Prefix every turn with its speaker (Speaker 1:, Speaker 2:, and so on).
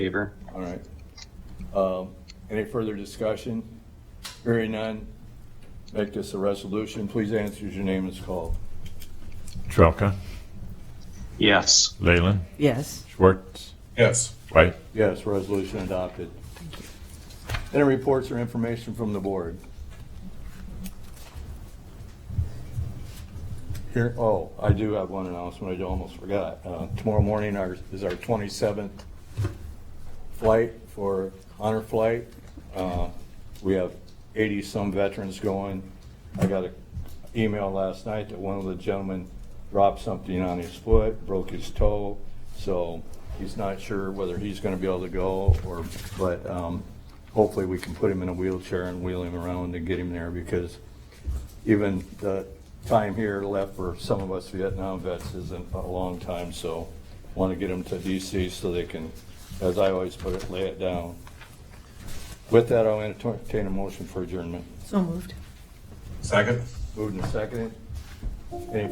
Speaker 1: Favor.
Speaker 2: All right. Um, Any further discussion? Hearing none, make this a resolution. Please answer as your name is called.
Speaker 3: Trelka,
Speaker 1: Yes.
Speaker 3: Leyland,
Speaker 4: Yes.
Speaker 3: Schwartz,
Speaker 5: Yes.
Speaker 3: White.
Speaker 2: Yes, resolution adopted. Any reports or information from the board? Here, oh, I do have one announcement, I almost forgot. Uh, Tomorrow morning our- is our 27th flight for honor flight. Uh, We have 80-some veterans going. I got an email last night that one of the gentlemen dropped something on his foot, broke his toe, so he's not sure whether he's going to be able to go or, but um, hopefully we can put him in a wheelchair and wheel him around and get him there because even the time here left for some of us Vietnam vets isn't a long time, so want to get them to DC so they can, as I always put it, lay it down. With that, I'll entertain a motion for adjournment.
Speaker 4: So moved.
Speaker 5: Second?
Speaker 2: Moved and seconded. Any